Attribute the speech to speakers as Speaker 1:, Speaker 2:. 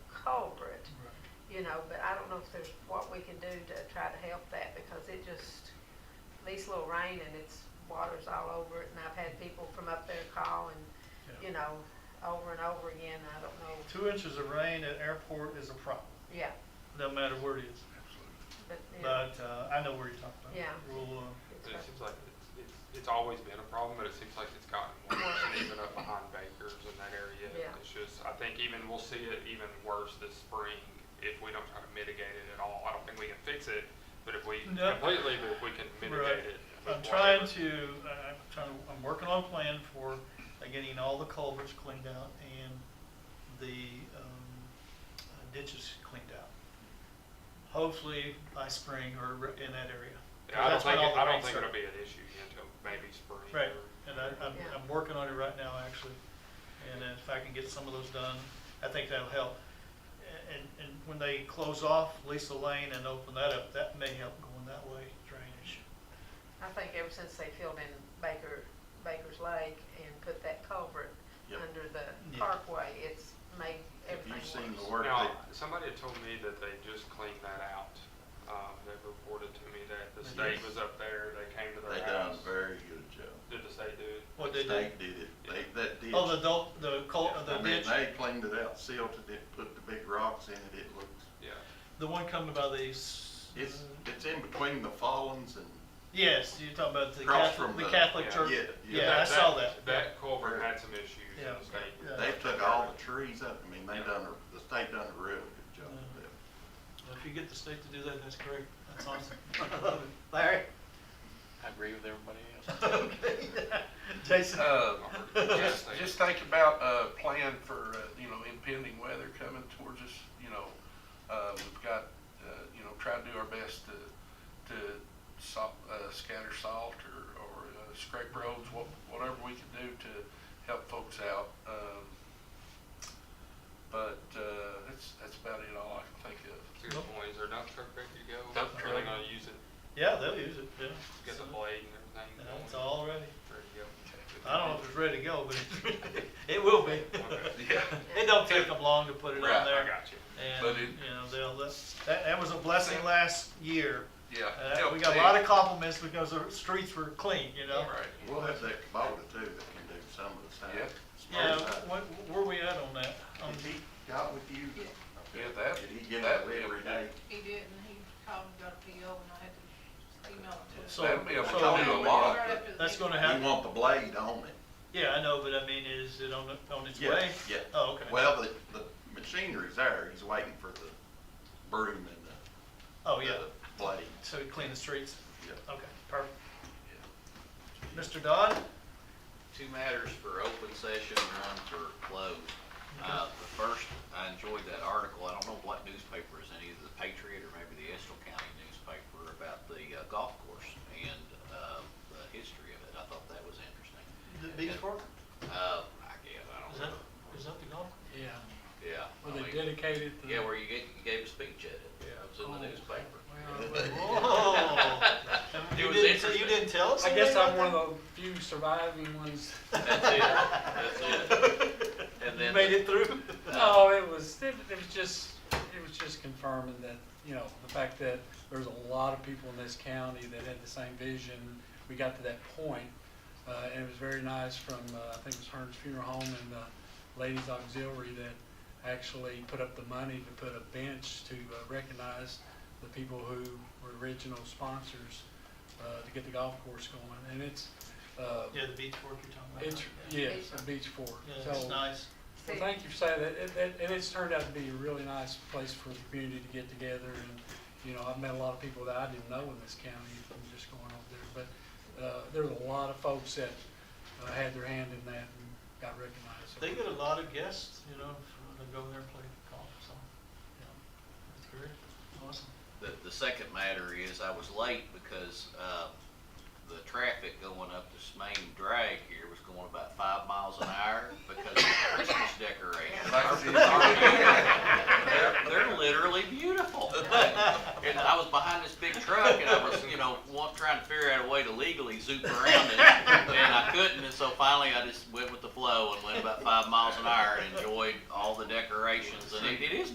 Speaker 1: you know, but I don't know if there's what we can do to try to help that because it just, these little rain and it's, water's all over it and I've had people from up there call and,
Speaker 2: Yeah.
Speaker 1: you know, over and over again, I don't know,
Speaker 2: Two inches of rain at airport is a problem,
Speaker 1: yeah,
Speaker 2: no matter where it is.
Speaker 1: but, yeah.
Speaker 2: But uh, I know where you're talking about.
Speaker 1: Yeah.
Speaker 2: We'll, uh,
Speaker 1: it's
Speaker 3: It
Speaker 1: rough.
Speaker 3: seems like it's, it's, it's always been a problem, but it seems like it's gotten worse, and even up behind Baker's in that area.
Speaker 1: Yeah.
Speaker 3: It's just, I think even, we'll see it even worse this spring if we don't try to mitigate it at all. I don't think we can fix it, but if we
Speaker 2: No.
Speaker 3: completely, but if we can
Speaker 2: Right.
Speaker 3: mitigate it. with
Speaker 2: uh, I'm trying to,
Speaker 3: whatever-
Speaker 2: I- I'm trying, to- I'm working on a plan for uh, getting all the culverts cleaned out and the um, ditches cleaned out. Hopefully by spring or in that area.
Speaker 3: Yeah, I don't
Speaker 2: That's when
Speaker 3: think,
Speaker 2: all
Speaker 3: it-
Speaker 2: the
Speaker 3: I don't
Speaker 2: rain
Speaker 3: think it'll
Speaker 2: started.
Speaker 3: be an issue until maybe spring.
Speaker 2: Right,
Speaker 3: or-
Speaker 2: and I, I'm,
Speaker 1: Yeah.
Speaker 2: I'm working on it right now, actually, and if I can get some of those done, I think that'll help. A- And, and when they close off Lisa Lane and open that up, that may help going that way drainage.
Speaker 1: I think ever since they filled in Baker, Baker's Lake and put that culvert
Speaker 4: Yep.
Speaker 1: under the
Speaker 2: Yeah.
Speaker 1: parkway, it's made
Speaker 4: Have
Speaker 1: everything
Speaker 4: you
Speaker 1: worse.
Speaker 4: seen the work
Speaker 3: Now,
Speaker 4: that,
Speaker 3: somebody had told me that they just cleaned that out. Um, they reported to me that the
Speaker 2: They
Speaker 3: state
Speaker 2: did.
Speaker 3: was up there, they came to
Speaker 4: they
Speaker 3: their
Speaker 4: done
Speaker 3: house.
Speaker 4: a very good job.
Speaker 3: Did the state do it?
Speaker 2: What they
Speaker 4: They
Speaker 2: did,
Speaker 4: did it, they, that ditch.
Speaker 2: oh, the dul- the cul,
Speaker 3: Yeah,
Speaker 2: the
Speaker 4: I mean,
Speaker 2: ditch,
Speaker 4: they cleaned it out, sealed it, it, put the big rocks in it, it looks,
Speaker 3: Yeah.
Speaker 2: the one coming by the, s-
Speaker 4: it's,
Speaker 2: Mm-hmm.
Speaker 4: it's in between the fallings and,
Speaker 2: yes, you're talking about the
Speaker 4: Across
Speaker 2: Catholic,
Speaker 4: from
Speaker 2: the
Speaker 4: the-
Speaker 2: Catholic
Speaker 3: yeah,
Speaker 2: church.
Speaker 4: yeah,
Speaker 2: Yeah,
Speaker 4: yeah.
Speaker 2: I
Speaker 3: That-
Speaker 2: saw that.
Speaker 3: That culvert had some issues in
Speaker 2: Yeah.
Speaker 3: the state.
Speaker 2: Yeah.
Speaker 4: they took all the trees up, I mean, they done, a- the state done a real good job
Speaker 2: Yeah.
Speaker 4: with it.
Speaker 2: Well, If you get the state to do that, that's great, that's awesome. Larry?
Speaker 5: I agree with everybody else.
Speaker 2: Okay. Jason?
Speaker 6: Uh,
Speaker 3: Yes,
Speaker 6: Just,
Speaker 3: they-
Speaker 6: just think about a plan for, uh, you know, impending weather coming towards us, you know. Uh, We've got, uh, you know, try to do our best to, to salt, uh, scatter salt or, or uh, scrape roads, wha- whatever we can do to help folks out. Um, But uh, that's, that's about it, all I can think of.
Speaker 3: That's a good point. Is there a dump truck ready to go?
Speaker 6: Dump
Speaker 3: Are they
Speaker 6: truck.
Speaker 3: gonna use it,
Speaker 2: Yeah, they'll use it, yeah.
Speaker 3: get the blade and everything
Speaker 2: Yeah,
Speaker 3: going?
Speaker 2: It's all ready.
Speaker 3: Ready to go.
Speaker 2: I don't know if it's ready to go, but it's ready. It will be.
Speaker 3: Okay.
Speaker 6: Yeah,
Speaker 2: It don't take them long to put it
Speaker 6: Right,
Speaker 2: on
Speaker 6: I
Speaker 3: I
Speaker 2: there.
Speaker 3: got you.
Speaker 2: And,
Speaker 6: But it-
Speaker 2: you know, they'll, that's- that, that was a blessing last year.
Speaker 6: yeah.
Speaker 2: Uh, we got a lot of compliments because the streets were clean, you know?
Speaker 6: Right.
Speaker 4: We'll have that Kubota too that can do some of the
Speaker 6: Yeah.
Speaker 4: same.
Speaker 2: Yeah,
Speaker 4: small side.
Speaker 2: where, where we at on that? Um, On-
Speaker 4: Has he got with you?
Speaker 7: Yeah.
Speaker 6: Yeah, that-
Speaker 4: Did he get
Speaker 6: that
Speaker 4: it
Speaker 6: would be
Speaker 4: every
Speaker 6: okay.
Speaker 4: day?
Speaker 7: He didn't, he called and got a PO and I had to email it to him.
Speaker 2: So-
Speaker 6: That'd be a
Speaker 2: so-
Speaker 6: total
Speaker 7: Right
Speaker 6: lot.
Speaker 7: after the
Speaker 2: That's
Speaker 7: meeting.
Speaker 2: gonna
Speaker 4: You
Speaker 2: happen.
Speaker 4: want the blade on it.
Speaker 2: Yeah, I know, but I mean, is it on, the- on its
Speaker 4: Yeah,
Speaker 2: way?
Speaker 4: Yeah.
Speaker 2: Oh, okay.
Speaker 4: Well, the, the machinery's there, he's waiting for the broom and the.
Speaker 2: Oh, yeah.
Speaker 4: the Blade,
Speaker 2: So we clean the streets?
Speaker 4: yeah.
Speaker 2: Okay, perfect. Mr. Dodd?
Speaker 8: two matters for open session, one for closed. Uh, the first, I enjoyed that article, I don't know what newspaper it's in, either the Patriot or maybe the Estill County newspaper about the uh, golf course and, uh, the history of it. I thought that was interesting.
Speaker 2: The beach
Speaker 8: And, Uh, I guess, I
Speaker 2: Is
Speaker 8: don't
Speaker 2: that,
Speaker 8: know.
Speaker 2: is that the golf?
Speaker 5: Yeah,
Speaker 8: Yeah. I
Speaker 5: well, they
Speaker 8: mean,
Speaker 5: dedicated the.
Speaker 8: Yeah, where you gave, you gave a speech at it, yeah, it was in the
Speaker 5: Oh.
Speaker 8: newspaper.
Speaker 2: Whoa. You
Speaker 8: was
Speaker 2: didn't, so you
Speaker 8: interesting.
Speaker 2: didn't tell us?
Speaker 5: I guess I'm
Speaker 2: anything
Speaker 5: one
Speaker 2: about
Speaker 5: of the few surviving ones.
Speaker 8: That's it, that's it. And
Speaker 2: that? You
Speaker 8: then,
Speaker 2: made it through?
Speaker 5: No, it was, it it was just, it was just confirming that, you know, the fact that there's a lot of people in this county that had the same vision. We got to that point, uh, and it was very nice from, uh, I think it was Hearns Funeral Home and the Ladies Auxiliary that actually put up the money to put a bench to uh, recognize the people who were original sponsors, uh, to get the golf course going. And it's, uh,
Speaker 2: Yeah, the beach fork you're talking about.
Speaker 5: it's, yes, a beach fork.
Speaker 2: Yeah, it's
Speaker 5: So-
Speaker 2: nice.
Speaker 5: well, thank you for saying that, It- it- and it's turned out to be a really nice place for the community to get together, and, you know, I've met a lot of people that I didn't know in this county, from just going over there, but, uh, there was a lot of folks that uh, had their hand in that and got recognized.
Speaker 2: They get a lot of guests, you know, that go there and play golf, so, yeah, that's great, awesome.
Speaker 8: The, the second matter is I was late because, uh, the traffic going up this main drag here was going about five miles an hour because of the Christmas decorations.
Speaker 6: Like I said,
Speaker 8: They're, they're literally beautiful. And I was behind this big truck and I was, you know, wa- trying to figure out a way to legally zoom around it. And I couldn't, and so finally I just went with the flow and went about five miles an hour and enjoyed all the decorations and